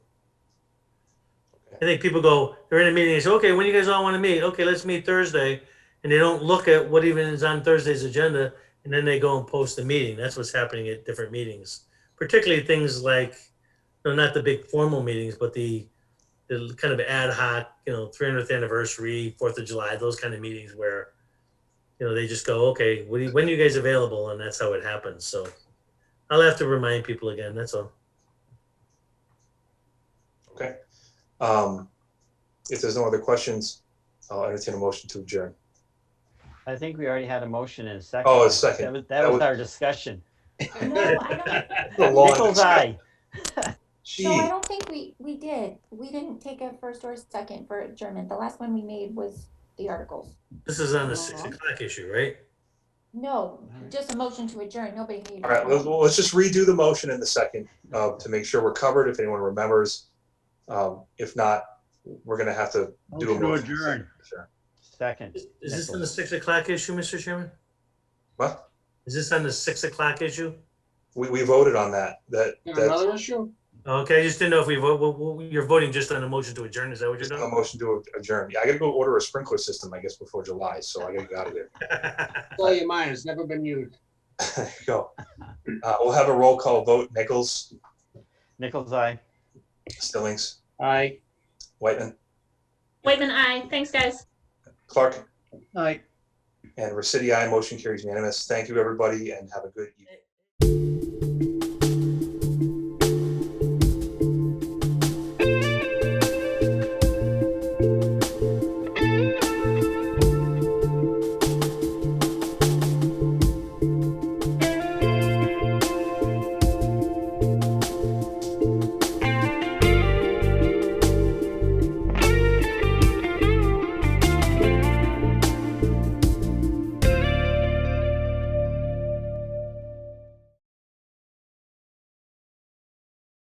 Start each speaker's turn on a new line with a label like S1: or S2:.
S1: I think people go, they're in a meeting, they say, okay, when you guys all want to meet? Okay, let's meet Thursday. And they don't look at what even is on Thursday's agenda, and then they go and post the meeting. That's what's happening at different meetings. Particularly things like, no, not the big formal meetings, but the, the kind of ad hoc, you know, 300th anniversary, 4th of July, those kind of meetings where, you know, they just go, okay, what do you- when are you guys available? And that's how it happens. So I'll have to remind people again, that's all.
S2: Okay. Um, if there's no other questions, I'll entertain a motion to adjourn.
S3: I think we already had a motion and a second.
S2: Oh, a second.
S3: That was,
S2: That
S3: that was
S2: was-
S3: our discussion.
S4: No, I don't,
S2: The long
S3: Nichols
S2: discussion.
S3: eye.
S2: Gee,
S4: no, I don't think we, we did. We didn't take a first or second for adjournment. The last one we made was the articles.
S1: This is on the six o'clock issue, right?
S4: No, just a motion to adjourn. Nobody needed.
S2: all right, let's, well, let's just redo the motion in the second, uh, to make sure we're covered, if anyone remembers. Um, if not, we're gonna have to do a
S5: Motion to
S2: motion.
S5: adjourn.
S2: Sure.
S3: Second.
S1: Is is this on the six o'clock issue, Mr. Chairman?
S2: What?
S1: Is this on the six o'clock issue?
S2: We, we voted on that, that,
S6: Got
S2: that's
S6: Another issue?
S1: Okay, I just didn't know if we vote, well, well, you're voting just on a motion to adjourn, is that what you're
S2: a
S1: doing?
S2: motion to adjourn. Yeah, I gotta go order a sprinkler system, I guess, before July, so I gotta get out of there.
S6: Tell your mind, it's never been used.
S2: There you Go. Uh, we'll have a roll call vote. Nichols,
S3: Nichols eye.
S2: Stillings,
S6: Aye.
S2: Whitman,
S7: Waitman, aye. Thanks, guys.
S2: Clark,
S5: Night.
S2: and Resity. I motion carries unanimous. Thank you, everybody, and have a good evening.